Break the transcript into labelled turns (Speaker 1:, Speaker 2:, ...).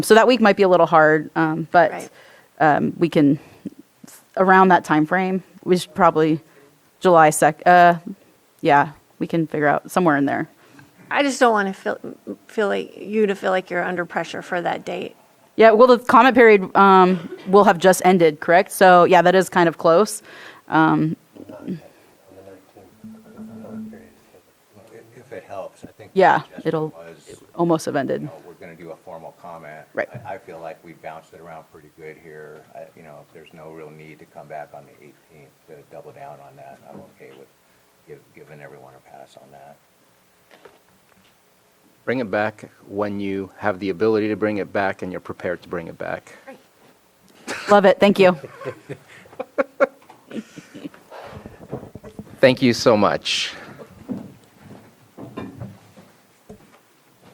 Speaker 1: So that week might be a little hard, um, but
Speaker 2: Right.
Speaker 1: um, we can, around that time frame. we should probably July 2nd, uh, yeah, we can figure out somewhere in there.
Speaker 2: I just don't want to feel, feel like, you to feel like you're under pressure for that date.
Speaker 1: Yeah, well, the comment period um, will have just ended, correct? So, yeah, that is kind of close.
Speaker 3: If- If it helps, I think. the
Speaker 1: Yeah,
Speaker 3: suggestion
Speaker 1: it'll-
Speaker 3: was,
Speaker 1: Almost have
Speaker 3: you
Speaker 1: ended.
Speaker 3: know, We're going to do a formal comment.
Speaker 1: Right.
Speaker 3: I I feel like we bounced it around pretty good here. I- You know, if there's no real need to come back on the 18th to double down on that, I'm okay with give- giving everyone a pass on that.
Speaker 4: Bring it back when you have the ability to bring it back and you're prepared to bring it back.
Speaker 1: Love it. Thank you.
Speaker 4: Thank you so much.